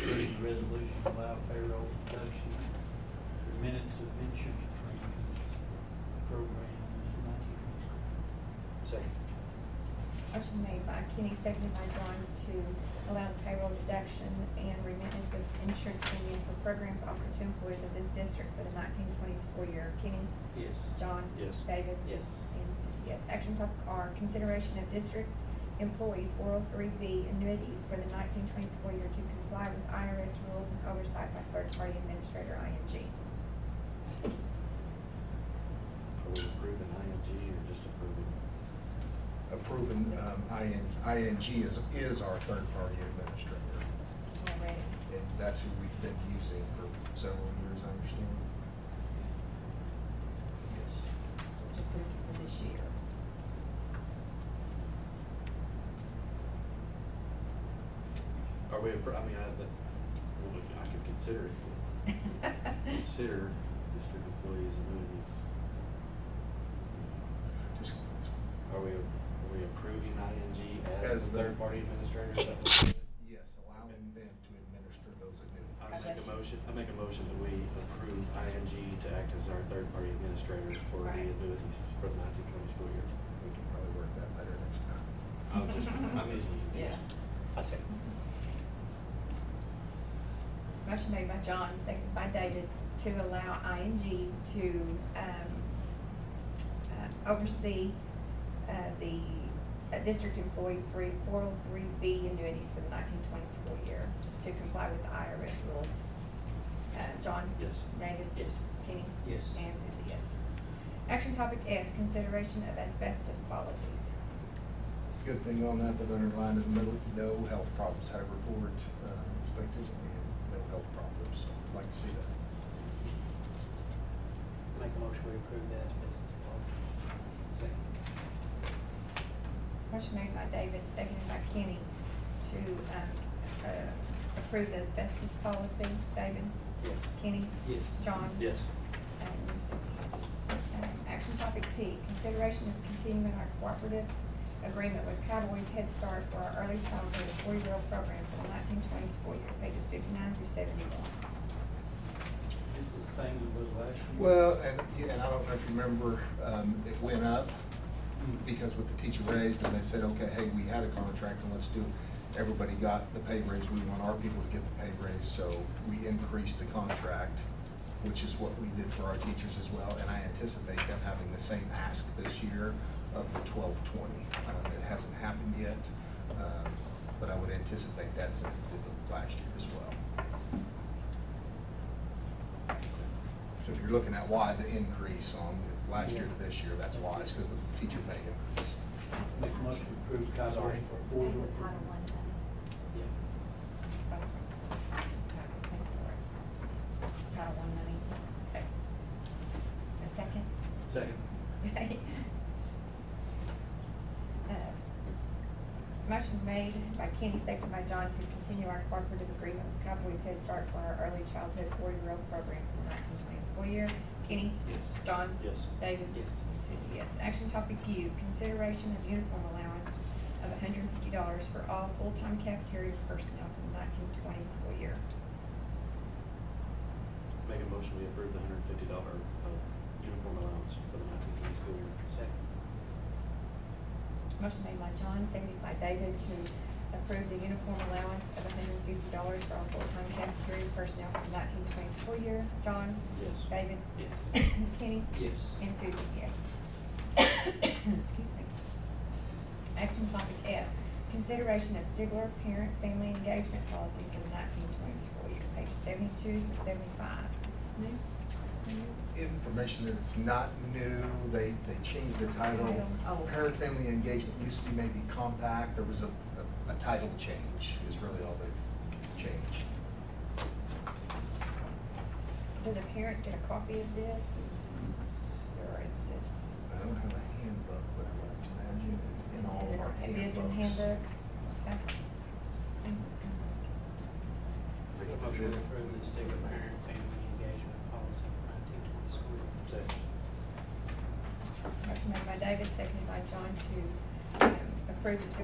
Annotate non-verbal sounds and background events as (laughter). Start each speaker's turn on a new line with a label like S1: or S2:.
S1: resolution to allow payroll deduction for minutes of insurance premiums program. It's not even-
S2: Second.
S3: Motion made by Kenny, seconded by John to allow the payroll deduction and remittance of insurance premiums for programs offered to employees of this district for the nineteen twenty school year. Kenny?
S1: Yes.
S3: John?
S2: Yes.
S3: David?
S4: Yes.
S3: And Susie, yes. Action topic R, consideration of district employees oral three B annuities for the nineteen twenty school year to comply with IRS rules and oversight by third-party administrator ING.
S2: Are we approving ING or just approving?
S5: approving um, IN ING is, is our third-party administrator.
S3: Already.
S5: And that's who we've been using for several years, I understand. Yes.
S3: Just approved for this year.
S2: Are we, appro- I mean, I, but, well, we- I could consider it, but consider district employees annuities.
S5: Just,
S2: Are we, are we approving ING as
S5: As
S2: the
S5: the-
S2: third party administrator? Is that what we're doing?
S5: yes, allowing them to administer those
S2: I
S5: annuities.
S2: make
S3: Yes.
S2: a motion, I make a motion that we approve ING to act as our third party administrator for the
S3: Right.
S2: annuities for the nineteen twenty school year.
S5: We can probably work that better next time.
S2: I'll just, I'm easily
S4: (laughs) Yeah.
S2: confused. I say.
S3: Motion made by John, seconded by David, to allow ING to, um, uh, oversee, uh, the uh, district employees three, four oh three B annuities for the nineteen twenty school year to comply with the IRS rules. Uh, John?
S2: Yes.
S3: David?
S4: Yes.
S3: Kenny?
S1: Yes.
S3: And Susie, yes. Action topic S, consideration of asbestos policies.
S5: Good thing on that, that underlined in the middle, no health problems had a report uh, expected and no health problems. So, Like to see that.
S4: Make a motion we approve the asbestos policy. Second.
S3: Motion made by David, seconded by Kenny to, um, uh, approve the asbestos policy. David?
S4: Yes.
S3: Kenny?
S4: Yes.
S3: John?
S2: Yes.
S3: And Susie, yes. Um, Action topic T, consideration of continuing our cooperative agreement with Cowboys Head Start for our early childhood four-year-old program for the nineteen twenty school year, pages fifty-nine through seventy-one.
S1: This is the same as was last year.
S5: Well, and, yeah, and I don't know if you remember, um, it went up because with the teacher raised, and they said, okay, hey, we had a contract, and let's do, everybody got the pay raise, we want our people to get the pay raise, so we increased the contract, which is what we did for our teachers as well, and I anticipate them having the same ask this year of the twelve twenty. Um, it hasn't happened yet, um, but I would anticipate that since it did last year as well. So if you're looking at why the increase on last year to this year, that's why, it's because the teacher pay increase.
S1: Make a motion to approve
S2: Sorry.
S1: Cowboys for
S6: Stay
S1: four-year
S6: with Title I money.
S2: Yeah.
S3: Title one money. A second?
S2: Second.
S3: Uh, Motion made by Kenny, seconded by John to continue our cooperative agreement with Cowboys Head Start for our early childhood four-year-old program for the nineteen twenty school year. Kenny?
S2: Yes.
S3: John?
S2: Yes.
S3: David?
S4: Yes.
S3: Susie, yes. Action topic U, consideration of uniform allowance of hundred and fifty dollars for all full-time cafeteria personnel for the nineteen twenty school year.
S2: Make a motion we approve the hundred and fifty dollar, uh, uniform allowance for the nineteen twenty school year.
S4: Second.
S3: Motion made by John, seconded by David to approve the uniform allowance of hundred and fifty dollars for all full-time cafeteria personnel for the nineteen twenty school year. John?
S2: Yes.
S3: David? (coughs)
S4: Yes.
S3: Kenny?
S4: Yes.
S3: And Susie, yes. (coughs) Excuse me. Action topic F, consideration of Stigler parent family engagement policy for the nineteen twenty school year, pages seventy-two through seventy-five. Is this new?
S5: information that it's not new, they, they changed the title.
S3: Title, oh.
S5: Parent family engagement used to be maybe compact, there was a, a, a title change is really all they've changed.
S3: Do the parents get a copy of this? Is- Or is this?
S5: I don't have a handbook, but I would imagine it's in all of our handbooks.
S3: It is in handbook. Okay.
S2: Make
S5: If
S2: a
S5: it
S2: motion.
S4: Motion
S5: is-
S4: to approve the state of parent family engagement policy for nineteen twenty school year.
S2: Second.
S3: Motion made by David, seconded by John to um, approve the student